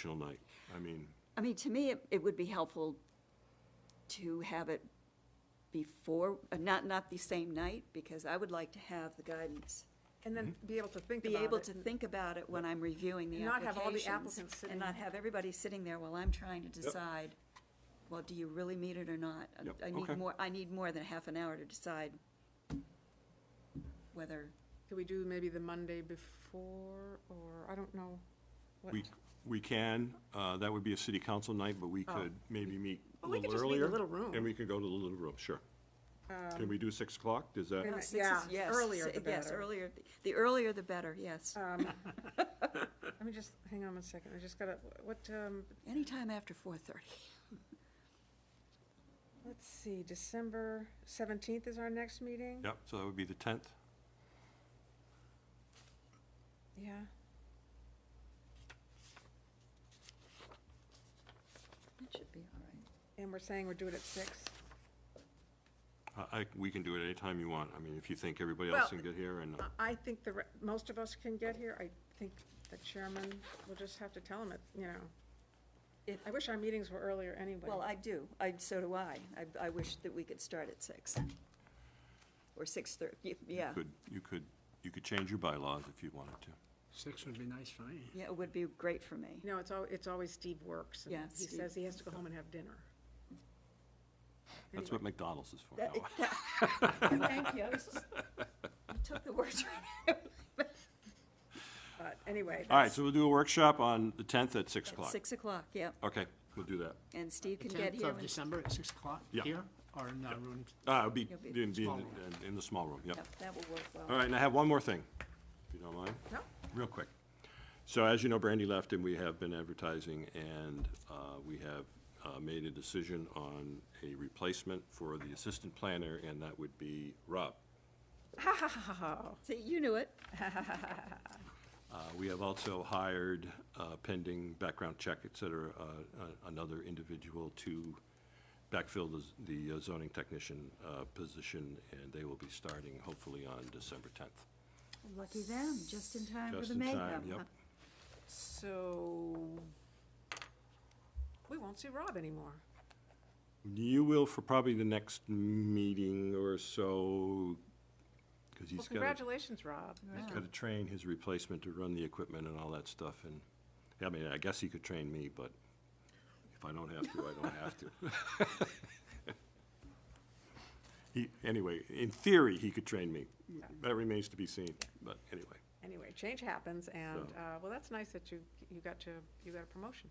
chill night. I mean, I mean, to me, it, it would be helpful to have it before, uh, not, not the same night, because I would like to have the guidance. And then Mm-hmm. be able to think about Be it. able to think about it when I'm reviewing the And not have all the applications. applicants sitting- And not have everybody sitting there while I'm trying to decide, well, do you really need it or not? I- Yep, I okay. need more, I need more than half an hour to decide whether, Could we do maybe the Monday before, or, I don't know, what? we, we can, uh, that would be a city council night, but we could maybe meet a Well, we little could just meet in earlier. the little room. And we could go to the little room, sure. Can we do 6 o'clock? Does that? Wait a minute. six is, Yeah, yes. earlier si- the Yes, better. Uh, earlier, the earlier the better, yes. Let me just, hang on one second, I just gotta, what, um, Anytime after four-thirty. let's see, December seventeenth is our next meeting? Yep, so that would be the 10th. Yeah. It should be all right. And we're saying we're doing it at six? I, I- we can do it anytime you want. I mean, if you think everybody Well, else can get here and, uh, I- I think the, re- most of us can get here, I think the chairman will just have to tell him it, you know. If- I wish our meetings were earlier anyway. Well, I do, I, so do I. I, I wish that we could start at six. Or six-thirty, yeah, could, you could, you could change your bylaws if you wanted to. Six would be nice for me. yeah, it would be great for me. No, it's al, it's always Steve works, and Yeah, he Steve. says he has to go home and have dinner. That's what McDonald's is for. That- No. that- Thank you. I was just- You took the words right But anyway, All right, so we'll do a workshop on the 10th at 6 out. o'clock. Six o'clock, yep, Okay, we'll do that. and Steve can get Tenth here. of when- December at six o'clock Yeah. here, or in our room? Uh, it'll be You'll be- in, be Small in, the- in the small room, yep. Yep, That will work All well. right, and I have one more thing, if you don't mind. no, real quick. So as you know, Brandy left, and we have been advertising, and uh, we have uh, made a decision on a replacement for the assistant planner, and that would be Rob. See, you knew it. Uh, We have also hired, uh, pending background check, et cetera, uh, a- another individual to backfill the z- the zoning technician uh, position, and they will be starting hopefully on December 10th. Lucky them, just in time Just in time, yep. so we won't see Rob anymore. You will for probably the next meeting or so, because Well, he's got to, congratulations, Rob. he's got to train his replacement to run the equipment and all that stuff, and, I mean, I guess he could train me, but if I don't have to, I don't have to. He, anyway, in theory, he could train me. That remains to be seen, but anyway. Anyway, change happens, So. and, uh, well, that's nice that you, you got to, you got a promotion.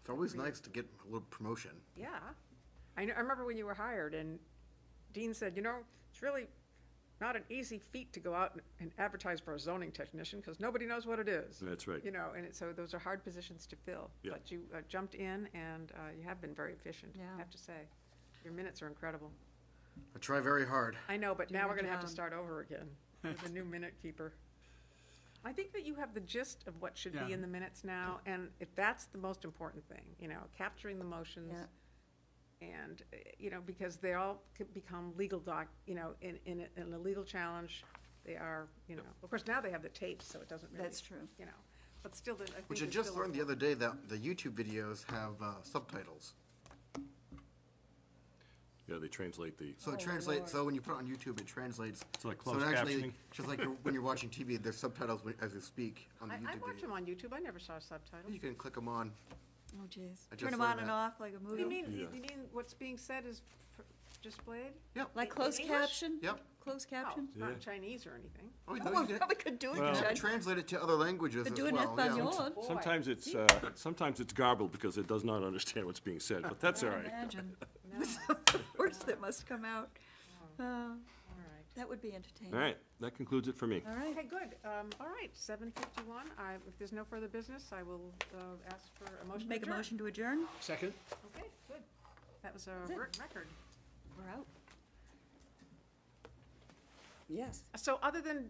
It's always nice to get a little promotion. Yeah. I know, I remember when you were hired, and Dean said, you know, it's really not an easy feat to go out and- and advertise for a zoning technician, because nobody knows what it is. That's right. You know, and it, so those are hard positions to fill. Yeah. But you uh, jumped in, and uh, you have been very efficient, Yeah. I have to say. Your minutes are incredible. I try very hard. I know, but now your we're gonna have to job. start over again with a new minute keeper. I think that you have the gist of what should be Yeah. in the minutes now, and if that's the most important thing, you know, capturing the motions. Yeah. And, eh, you know, because they all could become legal doc, you know, in, in, a- in a legal challenge, they are, you know, of course, now they have the tapes, so it doesn't really. That's true. You know, but still, the- I think. Which I it's just still learned the important. other day that the YouTube videos have uh, subtitles. Yeah, they translate the, So it translates, so when you put it on YouTube, it translates. It's like so it closed actually- captioning. Just like you're- when you're watching TV, there's subtitles when- as you speak on the I, I YouTube watch them video. on YouTube, I never saw subtitles. You can click them on. Oh, jeez. I Turn just them learned on and that. off like a What do you movie. mean, you Yeah. you mean what's being said is pr- displayed? Yep. Like closed English? caption? Yep. Closed Oh, caption? not Chinese or anything. Oh, you Oh, know, I you probably can- could do it, Well- you can Judge. translate it to other languages They're as doing well. yeah. Espanol. sometimes it's, uh, sometimes it's garbled because it does not understand what's being said, but that's all right. Imagine. the words that must come out. Uh, All right. That would be entertaining. All right, that concludes it for me. All right. Okay, good. Um, all right, seven fifty-one. I, if there's no further business, I will, uh, ask for a motion to Make a adjourn. motion to adjourn? Second? Okay, good. That was a it. work record. We're out. Yes. So other than